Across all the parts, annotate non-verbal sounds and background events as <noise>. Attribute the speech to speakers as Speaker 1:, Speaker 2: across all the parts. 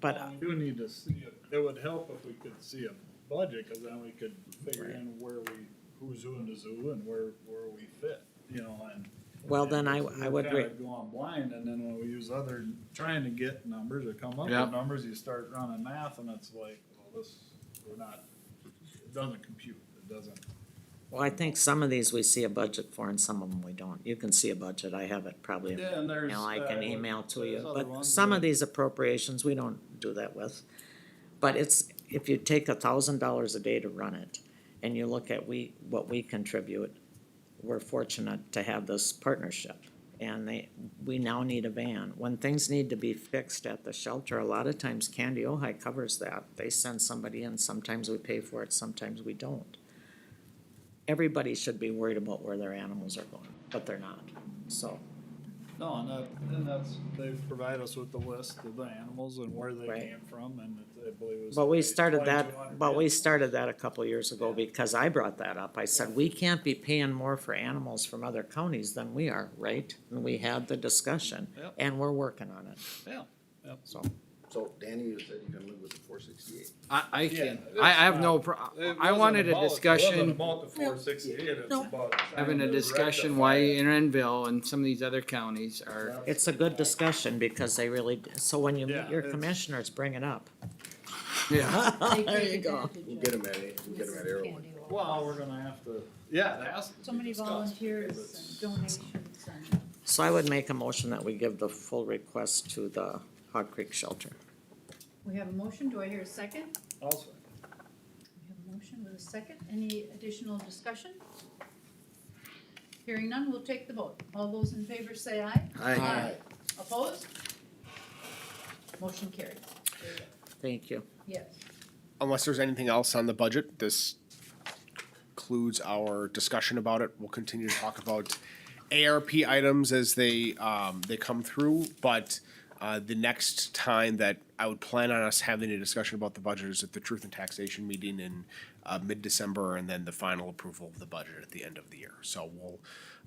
Speaker 1: But uh,
Speaker 2: We do need to see it, it would help if we could see a budget, cause then we could figure
Speaker 1: Right.
Speaker 2: in where we, who's who in the zoo and where, where we fit, you know, and.
Speaker 1: Well, then I-
Speaker 2: and
Speaker 1: I would
Speaker 2: We're
Speaker 1: re-
Speaker 2: kinda going blind, and then when we use other, trying to get numbers or come up
Speaker 3: Yeah.
Speaker 2: with numbers, you start running math and it's like, well, this, we're not, it doesn't compute, it doesn't.
Speaker 1: Well, I think some of these we see a budget for and some of them we don't. You can see a budget, I have it probably, in
Speaker 2: Yeah,
Speaker 1: my
Speaker 2: and there's,
Speaker 1: email. I
Speaker 2: uh,
Speaker 1: can email to
Speaker 2: there's
Speaker 1: you,
Speaker 2: other
Speaker 1: but
Speaker 2: ones
Speaker 1: some
Speaker 2: that-
Speaker 1: of these appropriations, we don't do that with. But it's, if you take a thousand dollars a day to run it, and you look at we, what we contribute, we're fortunate to have this partnership. And they, we now need a van. When things need to be fixed at the shelter, a lot of times Candy Ojai covers that. They send somebody in, sometimes we pay for it, sometimes we don't. Everybody should be worried about where their animals are going, but they're not, so.
Speaker 2: No, and that, and that's, they provide us with the list of the animals and where they
Speaker 1: Right.
Speaker 2: came from, and it's- I believe it was.
Speaker 1: But we started
Speaker 2: 2,200
Speaker 1: that, but we
Speaker 2: animals.
Speaker 1: started that a couple years ago because I brought that up. I said, we can't be paying more for animals from other counties than we are, right? And we had the discussion
Speaker 2: Yep.
Speaker 1: and we're working on it,
Speaker 2: Yeah, yep.
Speaker 1: so.
Speaker 4: So Danny, you said you can live with the four sixty-eight.
Speaker 3: I, I
Speaker 2: Yeah,
Speaker 3: can,
Speaker 2: it's
Speaker 3: I, I have no,
Speaker 2: not-
Speaker 3: pro-
Speaker 2: It
Speaker 3: I
Speaker 2: wasn't
Speaker 3: wanted a
Speaker 2: about- it wasn't
Speaker 3: discussion,
Speaker 2: about the 468, it's
Speaker 1: No.
Speaker 2: about trying
Speaker 3: having a
Speaker 2: to
Speaker 3: discussion
Speaker 2: rectify
Speaker 3: why
Speaker 2: it.
Speaker 3: Enronville and some of these other counties are,
Speaker 2: That's-
Speaker 1: It's a good discussion because they really, so when you
Speaker 2: Yeah,
Speaker 1: meet your
Speaker 2: it's-
Speaker 1: commissioners, bring it up. <laughs>
Speaker 3: yeah.
Speaker 1: There you go.
Speaker 4: We'll get him at, it- we'll get him at Arrowhead.
Speaker 2: Well, we're gonna have to, yeah, it has to be
Speaker 5: So many
Speaker 2: discussed,
Speaker 5: volunteers
Speaker 2: because
Speaker 5: and donations and.
Speaker 1: So I would make a motion that we give the full request to the Hog Creek Shelter.
Speaker 5: We have a motion, do I hear a second?
Speaker 2: it's Also,
Speaker 5: We have a motion with a second, any additional discussion? Hearing none, we'll take the vote. All those in favor say aye.
Speaker 3: Aye.
Speaker 5: Opposed? Motion carried. There you go.
Speaker 1: Thank you.
Speaker 5: Yes.
Speaker 6: unless there's anything else on the budget, this concludes our discussion about it. We'll continue to talk about ARP items as they, um, they come through, but, uh, the next time that I would plan on us having a discussion about the budget is at the Truth and Taxation meeting in, uh, mid-December, and then the final approval of the budget at the end of the year. So we'll,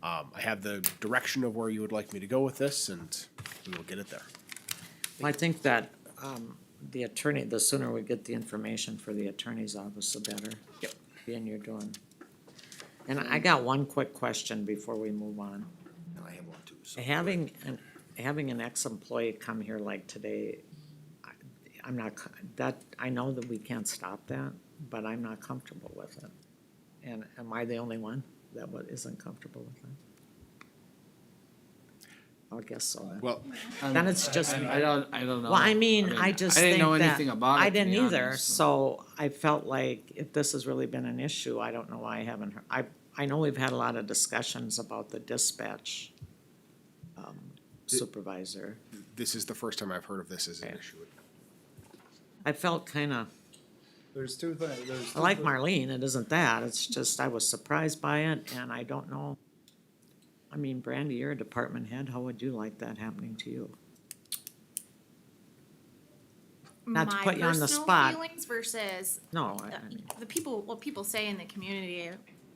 Speaker 6: um, I have the direction of where you would like me to go with this, and we will get it there.
Speaker 1: I think that, um, the attorney, the sooner we get the information for the attorney's office, the better. Yep. Being you're doing. And I got one quick question before we move on.
Speaker 4: And I have one too, so.
Speaker 1: Having, an- having an ex-employee come here like today, I- I'm not, co- that, I know that we can't stop that, but I'm not comfortable with it. And am I the only one that wa- isn't comfortable with that? I guess so. then.
Speaker 6: Well,
Speaker 1: Then it's just me.
Speaker 3: um, I don't, I don't know.
Speaker 1: Well, I mean, I just
Speaker 3: I
Speaker 1: think
Speaker 3: didn't know
Speaker 1: that-
Speaker 3: anything about it.
Speaker 1: I
Speaker 3: to be
Speaker 1: didn't either,
Speaker 3: honest.
Speaker 1: so I felt like if this has really been an issue, I don't know why I haven't heard. I, I know we've had a lot of discussions about the dispatch um, supervisor.
Speaker 6: this is the first time I've heard of this as an
Speaker 1: Okay.
Speaker 6: issue.
Speaker 1: I felt kinda,
Speaker 2: there's two things, there's.
Speaker 1: I like
Speaker 2: two thi-
Speaker 1: Marlene, it isn't that, it's just I was surprised by it and I don't know. I mean, Brandy, you're a department head, how would you like that happening to you? Not to
Speaker 7: my
Speaker 1: put you on the
Speaker 7: personal
Speaker 1: spot.
Speaker 7: Feelings versus
Speaker 1: No, Oh, I,
Speaker 7: the,
Speaker 1: I mean,
Speaker 7: the people, what people say in the community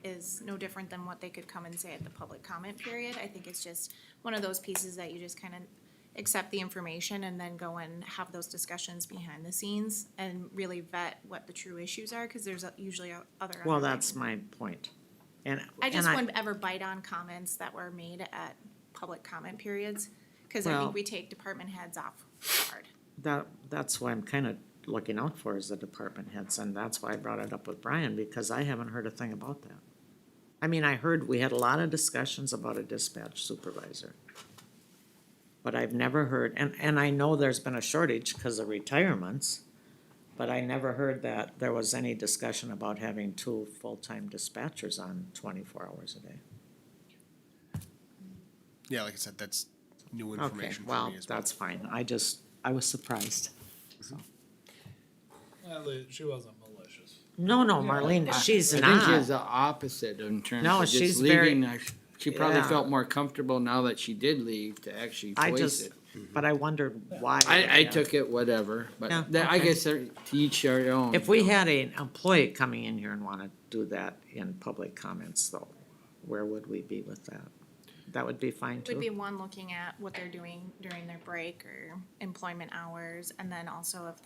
Speaker 7: is no different than what they could come and say at the public comment period. I think it's just one of those pieces that you just kind of accept the information and then go and have those discussions behind the scenes and really vet what the true issues are, because there's a- usually a- other.
Speaker 1: well,
Speaker 7: underlying-
Speaker 1: that's my point. And,
Speaker 7: I
Speaker 1: and
Speaker 7: just wouldn't ever bite on comments that were made at public comment periods, because I
Speaker 1: Well-
Speaker 7: think we take department heads off guard.
Speaker 1: that, that's why I'm kind of looking out for is the department heads, and that's why I brought it up with Brian, because I haven't heard a thing about that. I mean, I heard, we had a lot of discussions about a dispatch supervisor. But I've never heard, and, and I know there's been a shortage because of retirements, but I never heard that there was any discussion about having two full-time dispatchers on twenty-four hours a day.
Speaker 6: Yeah, like I said, that's new
Speaker 1: Okay,
Speaker 6: information for
Speaker 1: well,
Speaker 6: me as well.
Speaker 1: that's fine, I just, I was surprised.
Speaker 2: Well, they- She wasn't malicious.
Speaker 1: No, no, Marlene, she's
Speaker 3: I
Speaker 1: not.
Speaker 3: think she has the opposite in terms
Speaker 1: No,
Speaker 3: of
Speaker 1: she's
Speaker 3: just
Speaker 1: very-
Speaker 3: leaving. I- She probably
Speaker 1: Yeah.
Speaker 3: felt more comfortable now that she did leave to actually
Speaker 1: I
Speaker 3: voice
Speaker 1: just,
Speaker 3: it. Mm-hmm.
Speaker 1: but I wondered why.
Speaker 3: I, I took it whatever,
Speaker 1: Yeah,
Speaker 3: but that- I
Speaker 1: okay.
Speaker 3: guess they're- to each their own.
Speaker 1: If we had an employee coming in here and wanna do that in public comments though, where would we be with that? that would be fine
Speaker 7: Would be
Speaker 1: too.
Speaker 7: one looking at what they're doing during their break or employment hours, and then also if